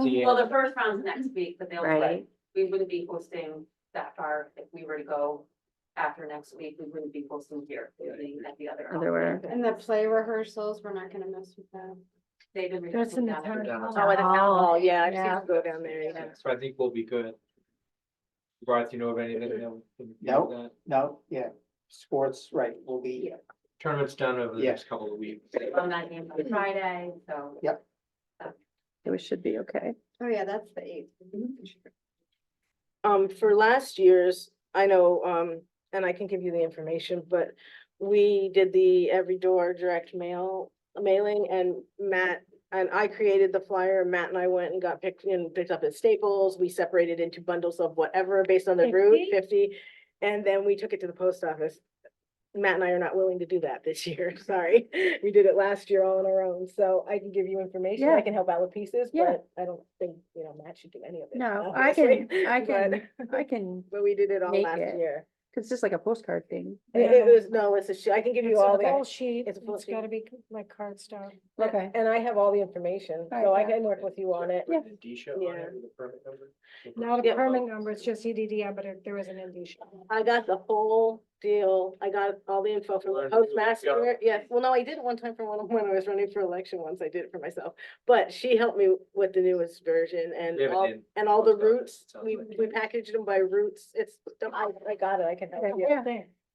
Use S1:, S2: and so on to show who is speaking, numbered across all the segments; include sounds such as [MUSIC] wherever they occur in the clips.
S1: Yeah.
S2: Well, the first round's next week, but they'll,
S3: Right.
S2: we wouldn't be hosting that far if we were to go after next week, we wouldn't be hosting here, we would be at the other.
S3: Other way.
S4: And the play rehearsals, we're not gonna mess with that.
S2: They've been.
S5: That's in the town.
S2: rehearsing
S5: hall.
S2: that.
S3: at the town hall.
S5: Oh, yeah, I've
S4: Yeah.
S5: seen you go down there, yeah.
S1: So I think we'll be good. Bart, you know of anything that we can do
S6: No.
S1: with that?
S6: No, yeah, sports, right, will be,
S1: Tournament's done over the
S6: Yeah.
S1: next couple of weeks.
S2: On that game on Friday, so.
S3: We should be okay.
S4: Oh, yeah, that's the eighth. Mm-hmm.
S5: Um, for last year's, I know, um, and I can give you the information, but we did the every door direct mail mailing and Matt and I created the flyer, Matt and I went and got picked and picked up at Staples. We separated into bundles of whatever based on the route, fifty. And then we took it to the post office. Matt and I are not willing to do that this [LAUGHS] year, sorry. We did it last year all on our own, so I can give you information, I
S3: Yeah.
S5: can help out with pieces,
S3: Yeah.
S5: but I don't think, you know, Matt should do any of it. [LAUGHS]
S3: No, I can,
S5: obviously,
S3: I
S5: but-
S3: can, I can,
S5: but we did it all
S3: Make
S5: last
S3: it.
S5: year.
S3: it's just like a postcard thing.
S5: It it was, no, it's a sheet, I can give you
S7: It's
S5: all
S7: a whole
S5: the,
S7: sheet,
S5: it's a full
S7: it's gotta be like cardstock.
S3: Okay.
S5: and I have all the information,
S3: All
S5: so I
S3: right, yeah.
S5: can work with you on it.
S3: Yeah.
S1: The D show on
S5: Yeah.
S1: it with the permit number?
S7: Not
S5: Yeah.
S7: a permit number, it's just EDD, but it- there was an indication.
S5: I got the whole deal, I got all the info from the
S1: Learned to do it
S5: postmaster,
S1: yourself.
S5: yes, well, no, I did it one time for one, [LAUGHS] when I was running for election once, I did it for myself. But she helped me with the newest version and
S1: They have it
S5: all,
S1: in
S5: and all the
S1: post office,
S5: routes,
S1: it sounds
S5: we,
S1: like.
S5: we packaged them by routes, it's, I, I got it, I can help
S3: Okay,
S5: you.
S3: yeah.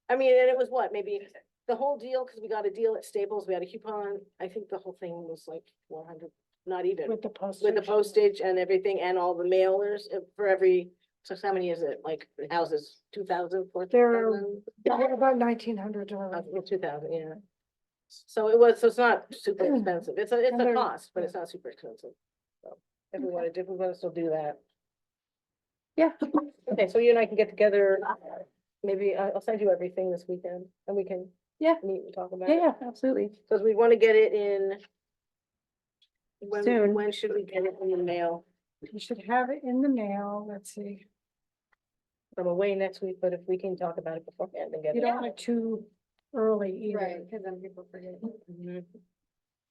S5: I mean, and it was what, maybe the whole deal, because we got a deal at Staples, we had a coupon, I think the whole thing was like four hundred, not even.
S7: With the postage.
S5: With the postage and everything and all the mailers uh, for every, so how many is it, like houses, two thousand, four
S7: There are-
S5: thousand?
S7: What About nineteen hundred
S5: Uh,
S7: dollars.
S5: two thousand, yeah. So it was, so it's not super
S3: Mm.
S5: expensive, it's a, it's
S7: And
S5: a
S7: they're-
S5: cost, but
S7: yeah.
S5: it's not super expensive. So If we wanna, if we wanna still do that.
S3: Yeah.
S5: Okay, so you and I can get together, maybe I- I'll send you everything this weekend and we can.
S3: Yeah.
S5: Meet and talk about
S3: Yeah,
S5: it.
S3: yeah, absolutely.
S5: Cause we wanna get it in. When,
S3: Soon.
S5: when should we get it in the mail?
S7: You should have it in the mail, let's see.
S5: I'm away next week, but if we can talk about it beforehand and get
S7: You
S5: it.
S7: don't
S5: out.
S7: want it too early
S4: Right,
S7: either.
S4: because then people forget.
S5: Mhm.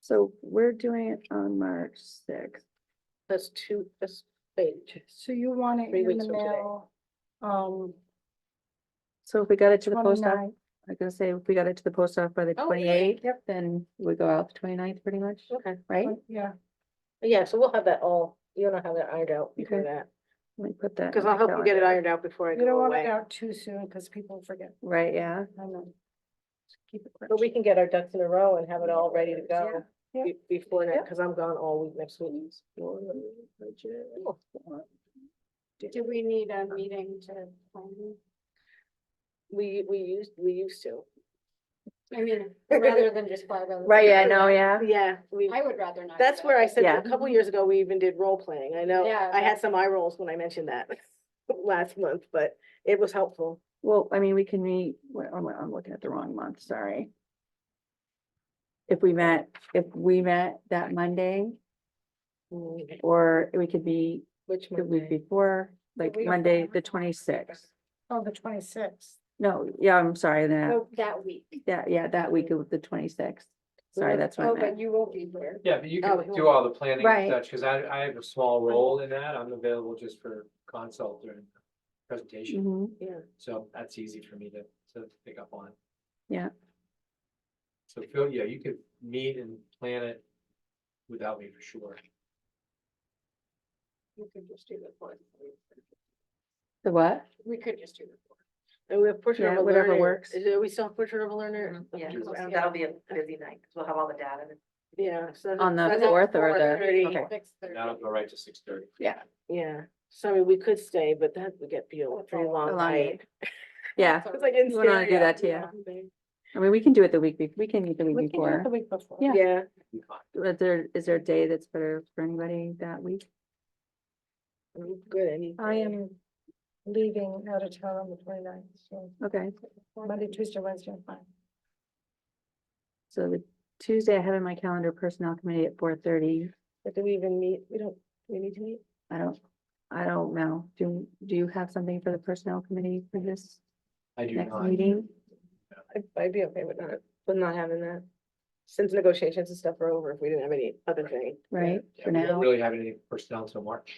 S3: So we're doing it on March sixth.
S5: That's two, that's, wait,
S7: So you want it
S5: Three
S7: in
S5: weeks
S7: the
S5: from today.
S7: mail. Um,
S3: So if we got it to the post office,
S7: twenty-nine,
S3: I was gonna say, if we got it to the post office by the
S5: Oh,
S3: twenty eighth, then we go out the 29th pretty much,
S5: okay,
S3: right?
S7: yeah.
S5: yeah, so we'll have that all, you and I have that ironed out before
S3: Okay.
S5: that,
S3: Let me put that. in
S5: cause
S3: my
S5: I'll help you get it
S3: calendar.
S5: ironed out before I
S7: You don't
S5: go
S7: want it
S5: away.
S7: out too soon because people forget.
S3: Right, yeah.
S7: I know. Keep it
S5: But we
S7: fresh.
S5: can get our ducks in a row and have it all ready to go
S7: Yeah.
S5: be- before
S3: Yeah.
S5: that, cause I'm gone all week next week.
S4: Do we need a meeting to plan?
S5: We, we used, we used to,
S4: I [LAUGHS] mean, rather than just fly around. the
S3: Right, yeah,
S4: country.
S3: no, Uh, yeah.
S5: yeah, we.
S4: I would rather not. do
S5: That's
S4: that.
S5: where I said,
S3: Yeah.
S5: a couple years ago, we even did role playing. I know,
S4: Yeah,
S5: I had some eye rolls when I mentioned that [LAUGHS] last month, but it was helpful.
S3: Well, I mean, we can meet, well, I'm, I'm looking at the wrong month, sorry. If we met, if we met that Monday, or we could be
S5: Which
S3: the week
S5: Monday?
S3: before, like
S7: week
S3: Monday,
S7: before.
S3: the twenty-sixth.
S7: Oh, the twenty-sixth.
S3: No, yeah, I'm sorry, then,
S4: Oh, That week.
S3: yeah, yeah, that week of the twenty-sixth. Sorry,
S5: have-
S3: that's what I
S4: Oh, but
S3: meant.
S4: you won't be here.
S1: Yeah, but you
S5: Oh,
S1: can do all the planning and
S3: Right.
S1: such, because I, I have a small role in that. I'm available just for consult during presentation.
S3: Mhm.
S1: So that's easy for me to, to pick up on.
S3: Yeah.
S1: So Phil, yeah, you could meet and plan it without me for sure.
S4: You could just do the fourth.
S3: The what?
S4: We could just do the fourth.
S5: And we have portrait of
S3: Yeah,
S5: a
S3: whatever
S5: learner.
S3: works.
S5: Is it- we still have portrait of a learner?
S2: Mm-hmm. Yeah,
S5: Just round
S2: that'll
S5: out.
S2: be a busy night, because we'll have all the data.
S5: Yeah. so that-
S3: On the
S5: that's
S3: fourth or the,
S5: 4:30.
S3: okay,
S4: Six thirty.
S1: That'll go right to six thirty.
S5: Yeah, so I mean, we could stay, but that would get be a
S4: That's a
S5: pretty
S3: the
S5: long
S3: long
S5: night.
S3: night. Yeah,
S5: It's like in
S3: You wouldn't wanna do
S5: stereo.
S3: that to
S5: Yeah.
S3: I mean, we can do it the week, be- we can meet the week
S7: We can do it
S3: before.
S7: the week before.
S3: Yeah.
S5: Yeah,
S3: Is there, is there a day that's better for anybody that week?
S5: I'm good, I need.
S7: I am leaving out of town on the 29th. so
S3: Okay.
S7: Monday, Tuesday, Wednesday, I'm fine.
S3: So the Tuesday I have in my calendar personnel committee at four thirty.
S5: But do we even meet? We don't, we need to meet?
S3: I don't, I don't know. Do, do you have something for the personnel committee for this
S1: I do
S3: next
S1: not.
S3: meeting?
S5: I'd, I'd be okay with not, with not having that. since negotiations and stuff are over, if we didn't have any other thing.
S3: right?
S1: Yeah,
S3: For
S1: we don't
S3: now.
S1: Really have any personnel till March.